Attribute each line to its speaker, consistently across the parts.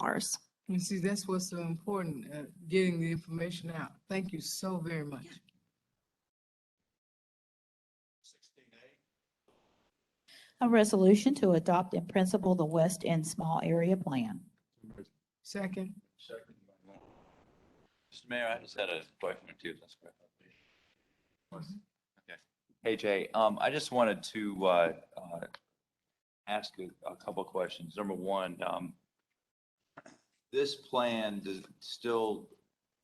Speaker 1: ours.
Speaker 2: You see, that's what's so important, uh, getting the information out. Thank you so very much.
Speaker 3: A resolution to adopt in principle the West End Small Area Plan.
Speaker 2: Second,
Speaker 4: Second by Lynn. Mr. Mayor, I just had a question or two. if that's correct. Okay. Hey Jay, um, I just wanted to, uh, uh, ask a, a couple questions. Number one, um, this plan does, still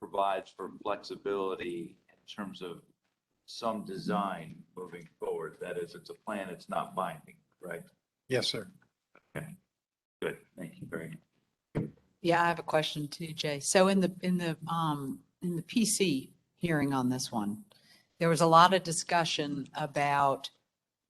Speaker 4: provides for flexibility in terms of some design moving forward. That is, it's a plan, it's not binding, right?
Speaker 5: Yes, sir.
Speaker 4: Good, thank you very much.
Speaker 6: Yeah, I have a question too, Jay. So in the, in the, um, in the PC hearing on this one, there was a lot of discussion about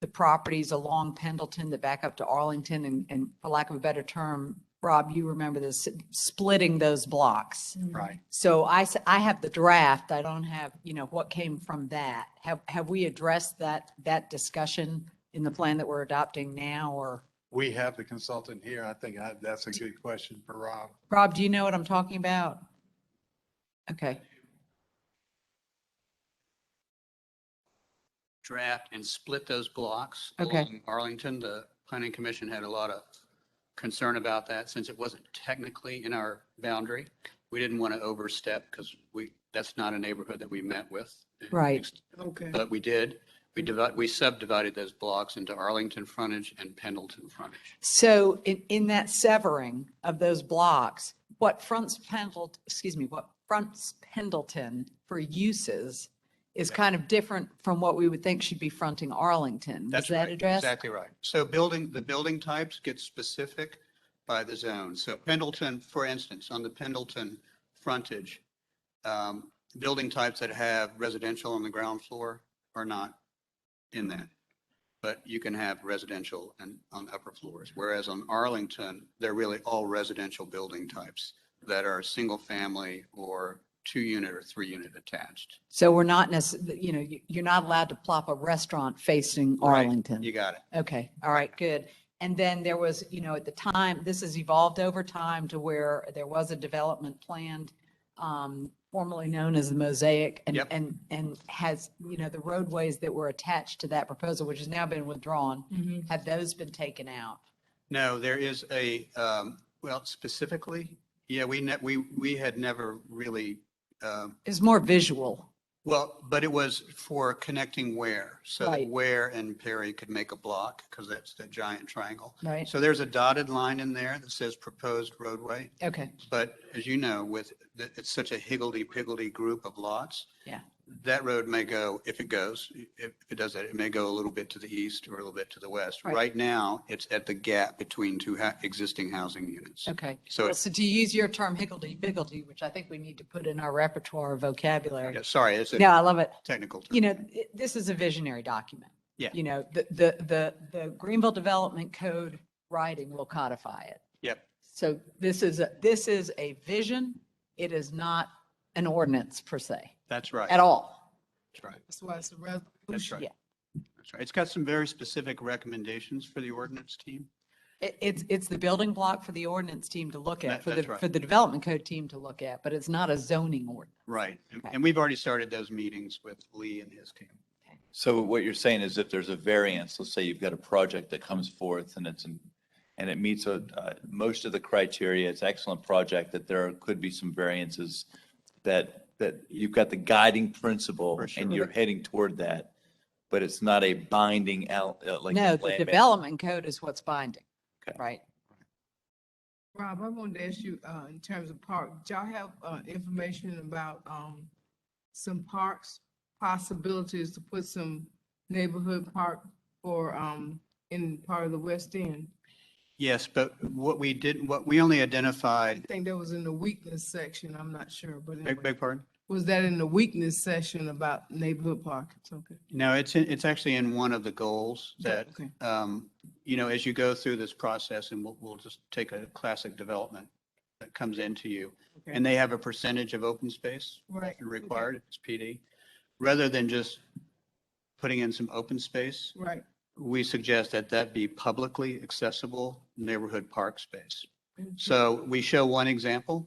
Speaker 6: the properties along Pendleton that back up to Arlington and, and for lack of a better term, Rob, you remember this, splitting those blocks.
Speaker 5: Right.
Speaker 6: So I, s- I have the draft. I don't have, you know, what came from that. Have, have we addressed that, that discussion in the plan that we're adopting now or?
Speaker 5: We have the consultant here. I think I- that's a good question for Rob.
Speaker 6: Rob, do you know what I'm talking about? Okay.
Speaker 7: draft and split those blocks.
Speaker 6: Okay.
Speaker 7: along Arlington, the planning commission had a lot of concern about that since it wasn't technically in our boundary. We didn't want to overstep because we, that's not a neighborhood that we met with.
Speaker 6: Right.
Speaker 2: okay.
Speaker 7: But we did. We divided, we subdivided those blocks into Arlington frontage and Pendleton frontage.
Speaker 6: So in, in that severing of those blocks, what fronts Pendleton, excuse me, what fronts Pendleton for uses is kind of different from what we would think should be fronting Arlington. Was
Speaker 7: That's
Speaker 6: that
Speaker 7: right.
Speaker 6: addressed?
Speaker 7: Exactly right. So building, the building types get specific by the zone. So Pendleton, for instance, on the Pendleton frontage, um, building types that have residential on the ground floor are not in that. But you can have residential and on upper floors, whereas on Arlington, they're really all residential building types that are single family or two unit or three unit attached.
Speaker 6: So we're not necess, you know, you- you're not allowed to plop a restaurant facing
Speaker 7: Right.
Speaker 6: Arlington.
Speaker 7: You got it.
Speaker 6: Okay, all right, good. And then there was, you know, at the time, this has evolved over time to where there was a development planned, um, formerly known as the Mosaic and,
Speaker 7: Yep.
Speaker 6: and, and has, you know, the roadways that were attached to that proposal, which has now been withdrawn,
Speaker 2: Mhm.
Speaker 6: have those been taken out?
Speaker 7: No, there is a, um, well, specifically, yeah, we ne, we, we had never really, um,
Speaker 6: It's more visual.
Speaker 7: well, but it was for connecting Ware. So
Speaker 6: Right.
Speaker 7: that Ware and Perry could make a block because that's the giant triangle.
Speaker 6: Right.
Speaker 7: So there's a dotted line in there that says proposed roadway.
Speaker 6: Okay,
Speaker 7: But as you know, with, the- it's such a higgledy-piggledy group of lots.
Speaker 6: Yeah.
Speaker 7: That road may go, if it goes, if it does that, it may go a little bit to the east or a little bit to the west.
Speaker 6: Right.
Speaker 7: Right now, it's at the gap between two ha- existing housing units.
Speaker 6: okay.
Speaker 7: So it's,
Speaker 6: So to use your term higgledy-piggledy, which I think we need to put in our repertoire of vocabulary.
Speaker 7: yeah, sorry, it's
Speaker 6: No,
Speaker 7: a
Speaker 6: I love it.
Speaker 7: technical term.
Speaker 6: you know, it- this is a visionary document.
Speaker 7: Yeah.
Speaker 6: You know, the, the, the, the Greenville Development Code writing will codify it.
Speaker 7: Yep.
Speaker 6: So this is, a this is a vision. It is not an ordinance per se,
Speaker 7: That's right.
Speaker 6: at all.
Speaker 7: That's right.
Speaker 2: That's why it's a
Speaker 7: That's
Speaker 2: resolution.
Speaker 7: right.
Speaker 6: Yeah.
Speaker 7: That's right. It's got some very specific recommendations for the ordinance team.
Speaker 6: It, it's, it's the building block for the ordinance team to look at,
Speaker 7: That-
Speaker 6: for the,
Speaker 7: that's right.
Speaker 6: for the Development Code team to look at, but it's not a zoning ordinance.
Speaker 7: Right. And-
Speaker 6: Okay.
Speaker 7: And we've already started those meetings with Lee and his team.
Speaker 4: So what you're saying is if there's a variance, let's say you've got a project that comes forth and it's, an- and it meets a, uh, most of the criteria, it's an excellent project, that there could be some variances that, that you've got the guiding principle
Speaker 7: For
Speaker 4: and
Speaker 7: sure.
Speaker 4: you're heading toward that, but it's not a binding out, uh, like.
Speaker 6: No,
Speaker 4: land
Speaker 6: the
Speaker 4: management.
Speaker 6: Development Code is what's binding,
Speaker 4: Okay.
Speaker 6: right?
Speaker 2: Rob, I wanted to ask you, uh, in terms of park, do y'all have, uh, information about, um, some parks, possibilities to put some neighborhood park or, um, in part of the West End?
Speaker 7: Yes, but what we did, what we only identified,
Speaker 2: I think that was in the weakness section, I'm not sure, but
Speaker 7: beg,
Speaker 2: anyway.
Speaker 7: beg pardon?
Speaker 2: was that in the weakness section about neighborhood park? It's Okay.
Speaker 7: No, it's, in- it's actually in one of the goals that,
Speaker 2: Okay.
Speaker 7: um, you know, as you go through this process and we'll, we'll just take a classic development that comes into you.
Speaker 2: Okay.
Speaker 7: And they have a percentage of open space
Speaker 2: Right.
Speaker 7: required, it's PD. Rather than just putting in some open space,
Speaker 2: Right.
Speaker 7: we suggest that that be publicly accessible neighborhood park space. So we show one example,